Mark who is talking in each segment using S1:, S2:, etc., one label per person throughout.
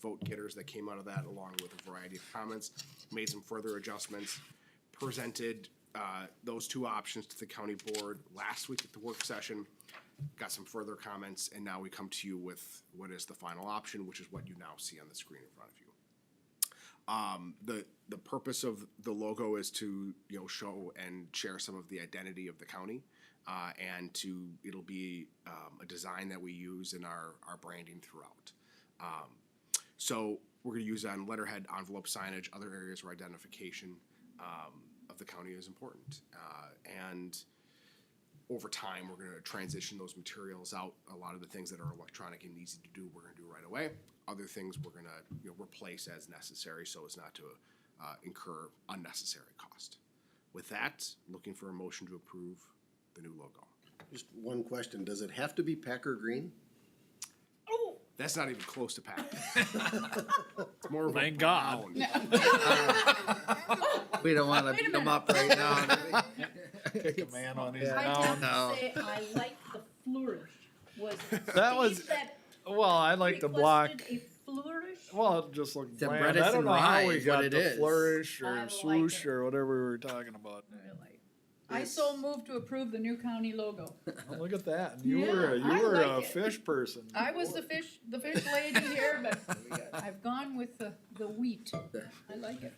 S1: vote getters that came out of that, along with a variety of comments, made some further adjustments, presented uh, those two options to the county board last week at the work session, got some further comments, and now we come to you with what is the final option, which is what you now see on the screen in front of you. Um, the, the purpose of the logo is to, you know, show and share some of the identity of the county. Uh, and to, it'll be, um, a design that we use in our, our branding throughout. Um, so we're gonna use on letterhead, envelope signage, other areas where identification, um, of the county is important. Uh, and over time, we're gonna transition those materials out. A lot of the things that are electronic and easy to do, we're gonna do right away. Other things, we're gonna, you know, replace as necessary so as not to, uh, incur unnecessary cost. With that, looking for a motion to approve the new logo.
S2: Just one question, does it have to be Packer green?
S3: Oh,
S1: That's not even close to packed. It's more of a
S4: Thank God.
S1: brown.
S5: We don't wanna
S3: Wait a
S5: beat them
S3: minute.
S5: up right now.
S4: Take a man on his
S3: I have
S4: own.
S5: no.
S3: to say, I like the flourish. Was
S4: That was-
S3: Steve that
S4: Well, I like the block.
S3: requested A flourish.
S4: Well, it just looked
S5: The
S4: bland.
S5: Bredesen
S4: I don't know how
S5: rye
S4: we
S5: is what
S4: got
S5: it
S4: the
S5: is.
S4: flourish
S3: I
S4: or
S3: like
S4: swoosh
S3: it.
S4: or whatever we were talking about.
S3: Really. I so moved to approve the new county logo.
S4: Oh, look at that. And You were a,
S3: Yeah, I
S4: you were a
S3: like it.
S4: fish person.
S3: I was the fish, the fish lady here, but I've gone with the, the wheat. I like it.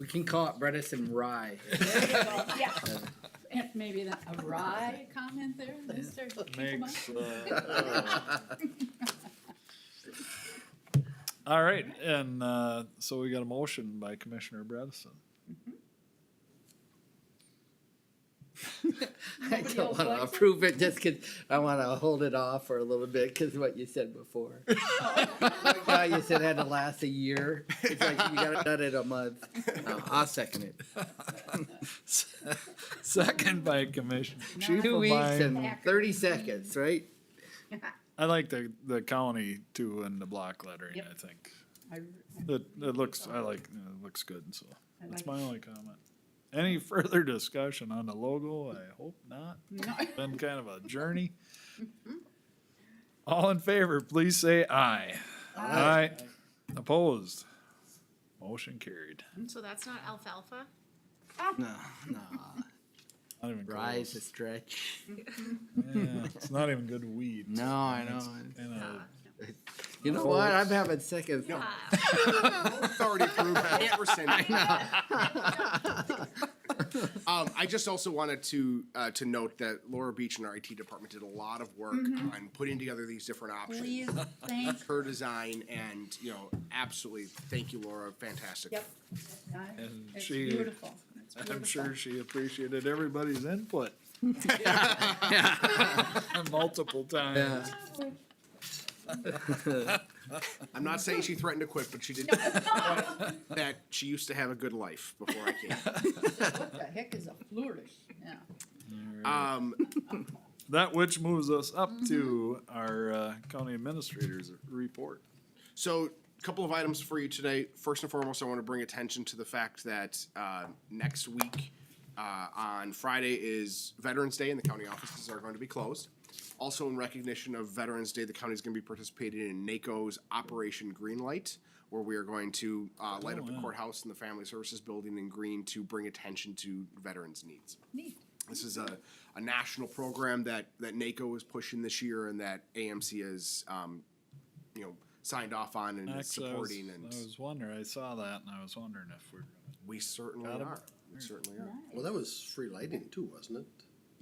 S5: We can call it Bredesen Rye.
S3: There you go. Yeah. And maybe that, a wry comment there, Mr. Finkelman?
S4: Makes. uh, All right, and uh, so we got a motion by Commissioner Bredesen.
S5: I
S3: Nobody
S5: don't
S3: else
S5: wanna
S3: likes it?
S5: approve it just 'cause I wanna hold it off for a little bit 'cause of what you said before. Like how You said it had to last a year. It's like you gotta done it a month. No, I'll second it.
S4: Second by Commissioner. Chief
S5: Two
S4: of
S5: weeks
S4: mine.
S5: and thirty seconds, right?
S4: I like the the county too and the block lettering.
S3: Yep.
S4: I think
S3: I-
S4: it it looks. I like it looks good. So
S3: I
S4: that's
S3: like
S4: my only comment. Any further discussion on the logo? I hope not.
S3: No. Mm-hmm.
S4: Been kind of a journey. All in favor, please say aye. Aye. Opposed. Motion carried.
S6: So that's not alfalfa?
S5: No, no.
S4: Not even
S5: Rye's a
S4: close.
S5: stretch.
S4: Yeah, it's not even good weed.
S5: No, I know.
S4: And a-
S5: You know what? I'm having second thoughts.
S1: It's already approved, it's rescinded. Um, I just also wanted to, uh, to note that Laura Beach and our IT department did a lot of work on putting together these different options.
S3: Please, thank,
S1: Her design and, you know, absolutely, thank you, Laura, fantastic.
S3: yep.
S4: And
S3: It's
S4: she-
S3: beautiful. It's
S4: I'm
S3: beautiful.
S4: sure she appreciated everybody's input multiple times.
S5: Yeah.
S1: I'm not saying she threatened to quit, but she did that she used to have a good life before I came.
S3: What the heck is a flourish? Yeah.
S1: Um,
S4: That which moves us up to our uh, county administrator's report.
S1: So, a couple of items for you today. First and foremost, I want to bring attention to the fact that uh, next week, uh, on Friday, is Veterans Day, and the county offices are going to be closed. Also, in recognition of Veterans Day, the county is going to be participating in NACO's Operation Greenlight, where we are going to uh, light up the courthouse and the Family Services Building in green to bring attention to veterans' needs.
S3: Neat.
S1: This is a, a national program that, that NACO is pushing this year and that AMC is, um, you know, signed off on and is
S4: Actually, I was,
S1: supporting and
S4: I was wondering, I saw that and I was wondering if we're gonna.
S1: we certainly
S4: Got 'em.
S1: are. We certainly are.
S2: Well, that was free lighting too, wasn't it?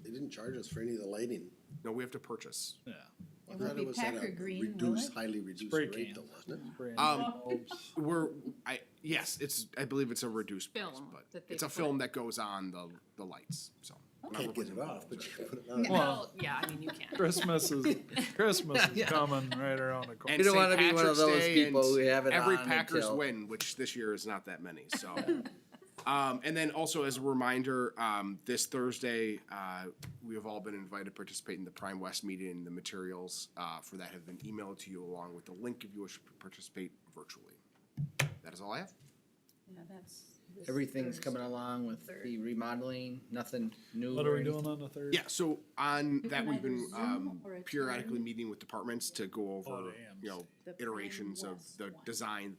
S2: They didn't charge us for any of the lighting.
S1: No, we have to purchase.
S4: Yeah.
S2: I
S3: It
S2: thought
S3: would be
S2: was at a
S3: Packer green, will
S2: reduced-
S3: it?
S2: Highly reduced
S4: Spray
S2: rate
S4: can.
S2: though, wasn't it?
S4: Brand
S1: Um,
S4: new bulbs.
S1: We're, I, yes, it's, I believe it's a reduced price,
S6: Film
S1: but
S6: that they
S1: it's a
S6: put-
S1: film that goes on the, the lights, so. not
S2: Can't get
S1: replacing
S2: it
S1: the
S2: off,
S1: bulbs,
S2: but you
S1: right?
S2: can put it on.
S4: Well,
S6: Well, yeah, I mean, you can.
S4: Christmas is, Christmas is
S5: Yeah.
S4: coming right around the corner.
S1: And
S5: You don't
S1: St.
S5: wanna be one of
S1: Patrick's
S5: those
S1: Day
S5: people
S1: and
S5: who have it
S1: Every
S5: on
S1: Packers
S5: until-
S1: win, which this year is not that many. So, um, and then also as a reminder, um, this Thursday uh, we have all been invited to participate in the Prime West meeting. The materials uh, for that have been emailed to you along with the link if you wish to participate virtually. That is all I have.
S3: Yeah, that's. this
S5: Everything's
S3: Thursday.
S5: coming along with
S3: Third.
S5: the remodeling, nothing new.
S4: What
S5: or
S4: are we doing
S5: anything.
S4: on the third?
S1: Yeah, so on
S3: You
S1: that
S3: can
S1: we've
S3: either
S1: been
S3: Zoom
S1: um,
S3: or attend
S1: periodically meeting with departments to go over,
S4: the
S1: you know,
S3: The Pine
S1: iterations of
S3: West
S1: the
S3: one.
S1: design